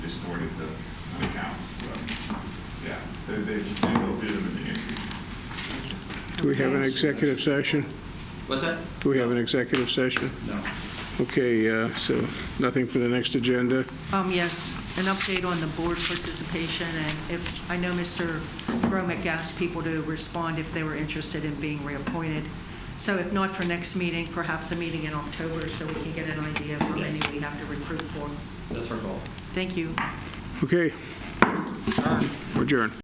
maybe they, maybe they'll be in the near future. Do we have an executive session? What's that? Do we have an executive session? No. Okay, uh, so nothing for the next agenda. Um, yes, an update on the board participation, and if, I know Mr. Gromick asked people to respond if they were interested in being reappointed. So if not for next meeting, perhaps a meeting in October, so we can get an idea of how many we have to recruit for. That's our goal. Thank you. Okay, All right. adjourn.